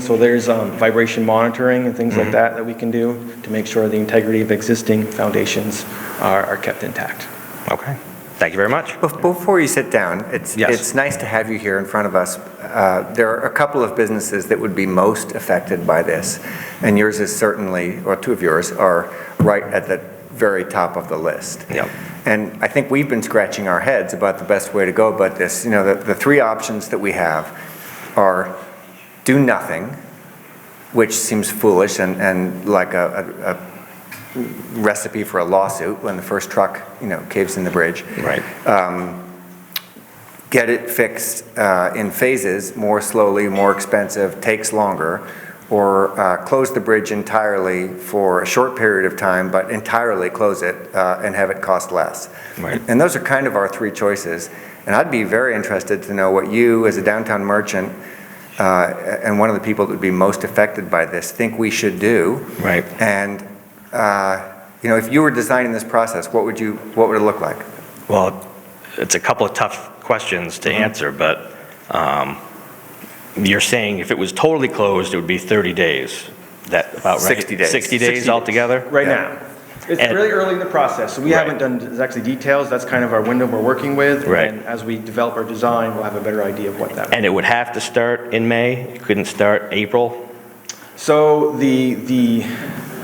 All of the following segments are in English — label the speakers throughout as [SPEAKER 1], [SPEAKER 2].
[SPEAKER 1] So there's um, vibration monitoring and things like that that we can do to make sure the integrity of existing foundations are are kept intact.
[SPEAKER 2] Okay, thank you very much.
[SPEAKER 3] Bef- Before you sit down, it's,
[SPEAKER 2] Yes.
[SPEAKER 3] it's nice to have you here in front of us. Uh, There are a couple of businesses that would be most affected by this, and yours is certainly, or two of yours, are right at the very top of the list.
[SPEAKER 2] Yep.
[SPEAKER 3] And I think we've been scratching our heads about the best way to go about this. You know, the, the three options that we have are do nothing, which seems foolish and, and like a, a- a recipe for a lawsuit when the first truck, you know, caves in the bridge
[SPEAKER 2] Right.
[SPEAKER 3] get it fixed uh, in phases, more slowly, more expensive, takes longer, or uh, close the bridge entirely for a short period of time, but entirely close it uh, and have it cost less.
[SPEAKER 2] Right.
[SPEAKER 3] And those are kind of our three choices. And I'd be very interested to know what you, as a downtown merchant, uh, and one of the people that would be most affected by this, think we should do.
[SPEAKER 2] Right.
[SPEAKER 3] And, uh, you know, if you were designing this process, what would you, what would it look like?
[SPEAKER 2] Well, it's a couple of tough questions to answer, but um, you're saying if it was totally closed, it would be 30 days. That about right?
[SPEAKER 3] 60 days.
[SPEAKER 2] 60 days
[SPEAKER 1] 60
[SPEAKER 2] altogether?
[SPEAKER 1] Right now. It's
[SPEAKER 2] And-
[SPEAKER 1] really early in the process, so we
[SPEAKER 2] Right.
[SPEAKER 1] haven't done exactly details. That's kind of our window we're working with.
[SPEAKER 2] Right.
[SPEAKER 1] And as we develop our design, we'll have a better idea of what that.
[SPEAKER 2] And it would have to start in May? It couldn't start April?
[SPEAKER 1] So the, the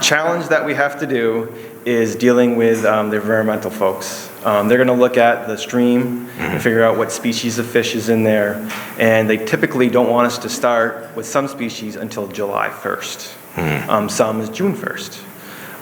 [SPEAKER 1] challenge that we have to do is dealing with um, the environmental folks. Um, They're going to look at the stream, and figure out what species of fish is in there, and they typically don't want us to start with some species until July 1st. Um, Some is June 1st.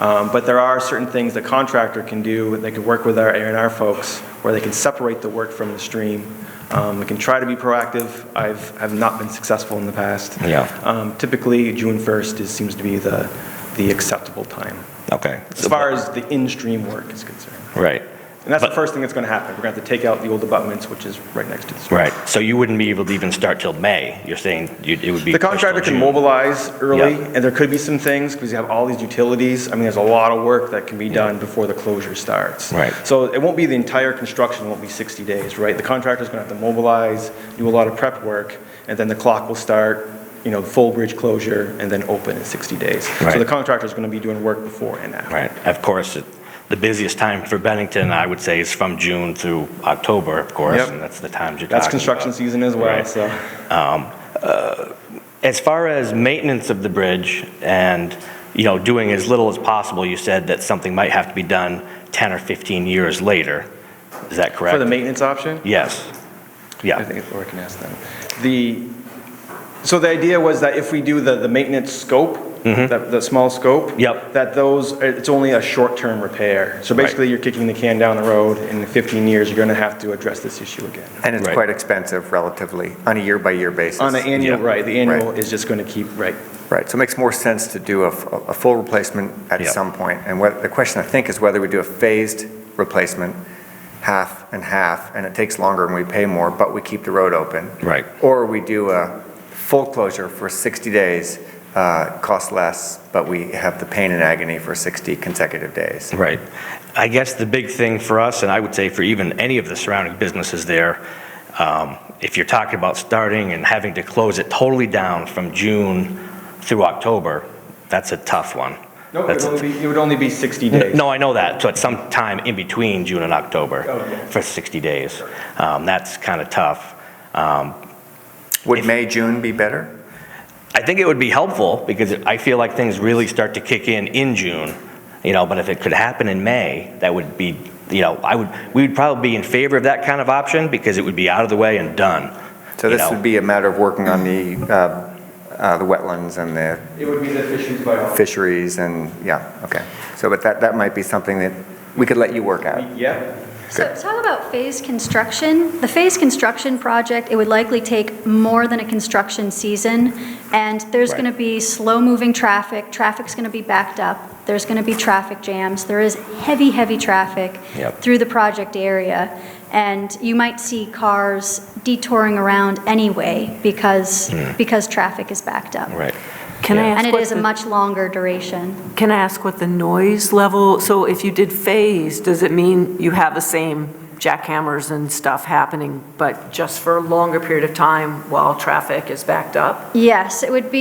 [SPEAKER 1] Um, But there are certain things the contractor can do, they can work with our A and R folks, where they can separate the work from the stream. Um, We can try to be proactive. I've, have not been successful in the past.
[SPEAKER 2] Yeah.
[SPEAKER 1] Um, Typically, June 1st is, seems to be the, the acceptable time,
[SPEAKER 2] Okay.
[SPEAKER 1] as far as the in-stream work is concerned.
[SPEAKER 2] Right,
[SPEAKER 1] And that's the
[SPEAKER 2] But-
[SPEAKER 1] first thing that's going to happen. We're going to have to take out the old abutments, which is right next to the stream.
[SPEAKER 2] right. So you wouldn't be able to even start till May? You're saying you- it would be
[SPEAKER 1] The
[SPEAKER 2] pushed till
[SPEAKER 1] contractor can
[SPEAKER 2] June.
[SPEAKER 1] mobilize early,
[SPEAKER 2] Yeah.
[SPEAKER 1] and there could be some things, because you have all these utilities. I mean, there's a lot of work that can be done before the closure starts.
[SPEAKER 2] Right.
[SPEAKER 1] So it won't be the entire construction, won't be 60 days, right? The contractor's going to have to mobilize, do a lot of prep work, and then the clock will start, you know, full bridge closure, and then open in 60 days. So
[SPEAKER 2] Right.
[SPEAKER 1] the contractor's going to be doing work before and after.
[SPEAKER 2] Right. Of course, it- the busiest time for Bennington, I would say, is from June through October, of course,
[SPEAKER 1] Yep.
[SPEAKER 2] and that's the times you're talking
[SPEAKER 1] That's construction
[SPEAKER 2] about.
[SPEAKER 1] season as well,
[SPEAKER 2] Right.
[SPEAKER 1] so.
[SPEAKER 2] As far as maintenance of the bridge and, you know, doing as little as possible, you said that something might have to be done 10 or 15 years later. Is that correct?
[SPEAKER 1] For the maintenance option?
[SPEAKER 2] Yes.
[SPEAKER 1] I
[SPEAKER 2] Yeah,
[SPEAKER 1] think Laura can ask them. The, so the idea was that if we do the, the maintenance scope, that, the small scope.
[SPEAKER 2] Mm-hmm. Yep.
[SPEAKER 1] That those, it's only a short-term repair. So
[SPEAKER 2] Right.
[SPEAKER 1] basically, you're kicking the can down the road, and in 15 years, you're gonna have to address this issue again.
[SPEAKER 3] And it's
[SPEAKER 2] Right.
[SPEAKER 3] quite expensive relatively, on a year-by-year basis.
[SPEAKER 1] On an annual,
[SPEAKER 2] Yeah.
[SPEAKER 1] right, the annual is just gonna keep, right,
[SPEAKER 3] Right, so it makes more sense to do a, a full replacement at
[SPEAKER 2] Yeah.
[SPEAKER 3] some point. And what, the question, I think, is whether we do a phased replacement, half and half, and it takes longer and we pay more, but we keep the road open.
[SPEAKER 2] Right.
[SPEAKER 3] Or we do a full closure for 60 days, uh, costs less, but we have the pain and agony for 60 consecutive days.
[SPEAKER 2] right. I guess the big thing for us, and I would say for even any of the surrounding businesses there, um, if you're talking about starting and having to close it totally down from June through October, that's a tough one.
[SPEAKER 1] no, it
[SPEAKER 2] That's
[SPEAKER 1] would
[SPEAKER 2] a
[SPEAKER 1] only be, it would only be 60 days.
[SPEAKER 2] No, I know that, so it's sometime in between June and October
[SPEAKER 1] Oh, yeah.
[SPEAKER 2] for 60 days. Um, That's kind of tough. Um,
[SPEAKER 3] Would
[SPEAKER 2] If-
[SPEAKER 3] May, June be better?
[SPEAKER 2] I think it would be helpful, because I feel like things really start to kick in in June, you know, but if it could happen in May, that would be, you know, I would, we would probably be in favor of that kind of option, because it would be out of the way and done.
[SPEAKER 3] So
[SPEAKER 2] you
[SPEAKER 3] this
[SPEAKER 2] know.
[SPEAKER 3] would be a matter of working on the, uh, uh, the wetlands and the
[SPEAKER 1] It would be the issues by.
[SPEAKER 3] fisheries and, yeah, okay. So, but that, that might be something that we could let you work out.
[SPEAKER 1] Yeah,
[SPEAKER 4] So talk about phase construction. The phase construction project, it would likely take more than a construction season, and there's
[SPEAKER 2] Right.
[SPEAKER 4] going to be slow-moving traffic, traffic's going to be backed up, there's going to be traffic jams, there is heavy, heavy traffic
[SPEAKER 2] Yep.
[SPEAKER 4] through the project area, and you might see cars detouring around anyway because, because traffic is backed up.
[SPEAKER 2] Right.
[SPEAKER 5] Can I
[SPEAKER 2] Yeah.
[SPEAKER 4] And
[SPEAKER 5] ask
[SPEAKER 4] it
[SPEAKER 5] what
[SPEAKER 4] is a
[SPEAKER 5] the,
[SPEAKER 4] much longer duration.
[SPEAKER 5] can I ask what the noise level, so if you did phase, does it mean you have the same jackhammers and stuff happening, but just for a longer period of time while traffic is backed up?
[SPEAKER 4] Yes, it would be